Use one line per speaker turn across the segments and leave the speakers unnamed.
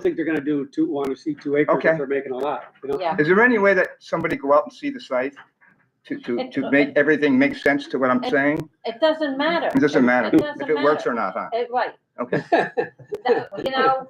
think they're gonna do two, wanna see two acres if
Okay.
they're making a lot, you know?
Yeah.
Is there any way that somebody go out and see the site to, to, to make everything make sense to what I'm saying?
It doesn't matter.
It doesn't matter
doesn't
if it works
matter.
or not, huh?
It- Right.
Okay.
That- You know,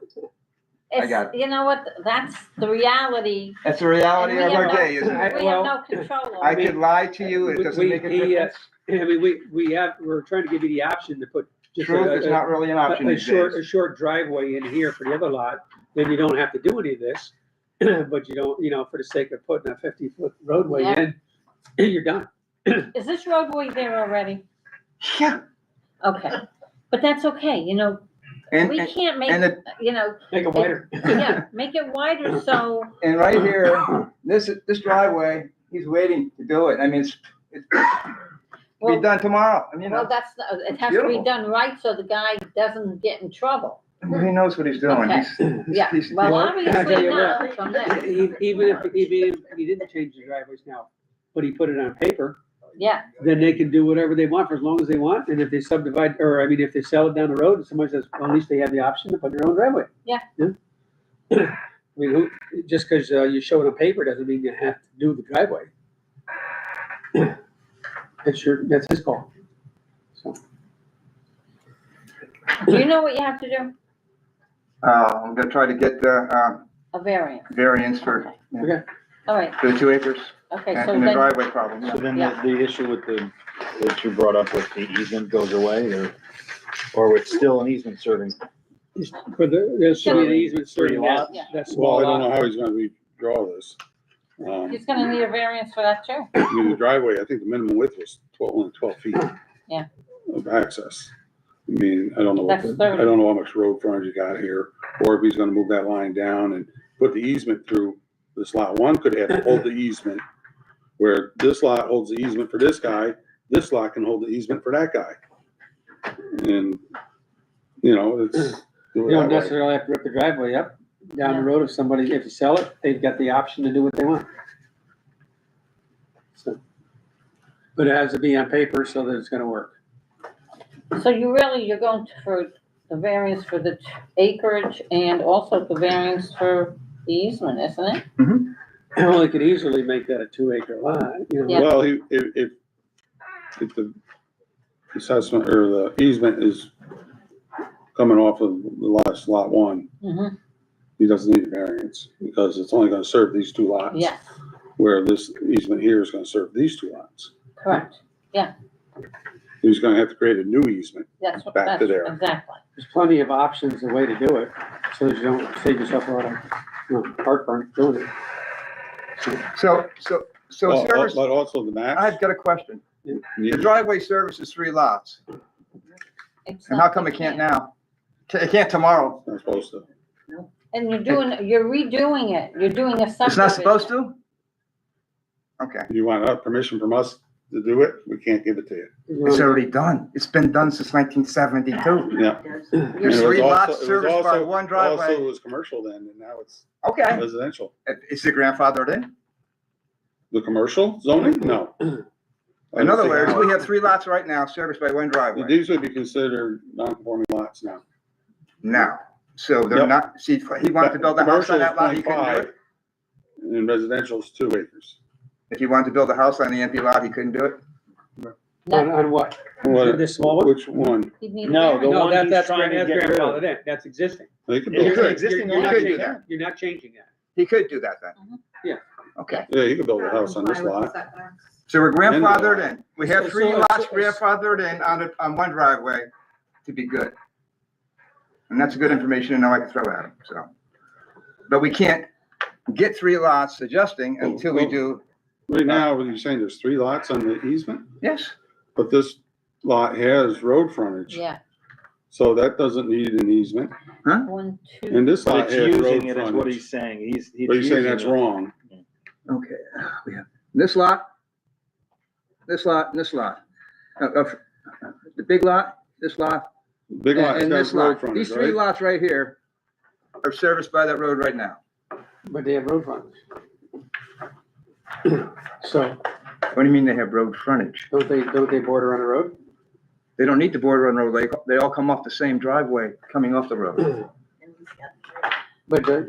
got
it's, you know what, that's the reality.
That's the reality
And
of
we
our
have
day, isn't
We
it?
I-
have
well,
no control
I
over.
could lie to you, it
We-
doesn't make a
we- he, uh,
difference.
I mean, we, we have, we're trying to give you the option to put just a,
Truth is
a-
not really an option
a- a
these
short, a
days.
short driveway in here for the other lot, then you don't have to do any of this. But you don't, you know, for the sake of putting a fifty-foot roadway
Yeah.
in, you're done.
Is this roadway there already?
Yeah,
Okay, but that's okay, you know,
and,
we
and,
can't make,
and it-
you know,
Make it wider.
yeah, make it wider, so,
and right here, this, is- this driveway, he's waiting to do it. I mean, it's, it's be
well,
done tomorrow. I mean, you
well,
know,
that's, uh, it has to be
beautiful.
done right, so the guy doesn't get in trouble.
he uh, knows what he's doing.
Okay.
He's- he's-
Yeah,
he's-
well,
Well, I tell
obviously
you
not from there,
E- Even if, even if he didn't change the driveways now, but he put it on paper,
yeah,
then they can do whatever they want for as long as they want. And if they subdivide, or I mean, if they sell it down the road and someone says, well, at least they have the option to put their own driveway.
Yeah.
I mean, who, just because uh, you show it on paper doesn't mean you have to do the driveway. That's your, that's his call. So,
do you know what you have to do?
Uh, I'm gonna try to get the, uh,
A variance,
variance for,
Okay.
all right,
for the two acres
okay, so
and the
then,
driveway problem.
So
yeah.
then the,
Yeah.
the issue with the, that you brought up with the easement goes away or, or it's still an easement serving?
For the, there's should be an
Serving
easement serving
three
that,
lots?
Yeah.
that small
Well, I don't know
lot.
how he's gonna redraw this. Um,
he's gonna need a variance for that too.
I mean, the driveway, I think the minimum width was twelve, only twelve feet.
Yeah.
Of access. I mean, I don't know, what
That's
the- I
thirty.
don't know how much road frontage you got here, or if he's gonna move that line down and put the easement through this lot. One could have to hold the easement, where this lot holds the easement for this guy, this lot can hold the easement for that guy. And, you know, it's. do
You don't
it that way.
necessarily have to rip the driveway up down the road if somebody, if you sell it, they've got the option to do what they want. So, But it has to be on paper so that it's gonna work.
So you really, you're going to- for the variance for the t- acreage and also the variance for the easement, isn't it?
Well, they could easily make that a two acre lot, you know.
Yeah.
Well, he- if, if, if the assessment or the easement is coming off of the last lot one,
Mm-hmm.
he doesn't need a variance because it's only gonna serve these two lots.
Yes,
Where this easement here is gonna serve these two lots.
correct,
He's gonna have to create a new easement.
that's what,
Back to
that's
there.
exactly,
There's plenty of options, and way to do it, so that you don't save yourself a lot of, you know, heartburn doing it.
So, so, so
Well,
service,
But also the max.
I've got a question. The
needs-
driveway services three lots,
It's
and how
not-
come it can't now? Ca- It can't tomorrow.
Not supposed to.
And you're doing, you're redoing it, you're doing a subdivision.
It's not supposed to? Okay,
You want uh, permission from us to do it? We can't give it to you.
it's already done. It's been done since nineteen seventy-two.
Yeah. And it
There's
was
three
also-
lots
it was
serviced by
also-
one
Also, it
driveway.
was commercial then, and now it's
Okay,
residential.
is it grandfathered in?
The commercial zoning? No.
In other words,
we.
we have three lots right now serviced by one driveway
These would be considered non-conforming lots now.
now. So they're
Yep.
not, see, he wanted to build a house on that lot, he couldn't do
Commercial is
it.
0.5, And residential's two acres.
If he wanted to build a house on the empty lot, he couldn't do it.
On, on what? This small one?
Which one?
You need a
No, the
variance.
Oh, No,
one
that,
he's
that's
trying to
grand-
get
that's
rid of.
grandfathered in, that's existing.
They could
It's
build,
You're-
an
could.
existing
You
You're not
could
lot.
do
changing-
that.
You're not changing that.
He could do that then.
Mhm.
Yeah.
Okay,
yeah, you could build a house on this lot.
so we're
Then what?
grandfathered in. We
So-
have three
so-
lots
so-
grandfathered in on, a- on one driveway to be good. And that's good information to know I can throw at him, so. But we can't get three lots adjusting
Well,
until we
Oh, well-
do,
Right now, what you're saying, there's three lots on the easement,
yes,
but this lot has road frontage.
Yeah,
So that doesn't need an easement.
one, two,
And this
But
lot
it's
has road
using it is what
frontage.
he's saying. He's, he's.
But you're saying
using
that's
it.
wrong.
okay. We have This lot, this lot, and this lot. Of, of the big lot, this lot,
Big lot has
and
got
this
road
lot.
frontage,
These three
right?
lots right here are serviced by that road right now.
But they have road frontage. So,
What do you mean they have road frontage?
don't they, don't they border on a road?
They don't need the border on road, they, they all come off the same driveway coming off the road.
but the,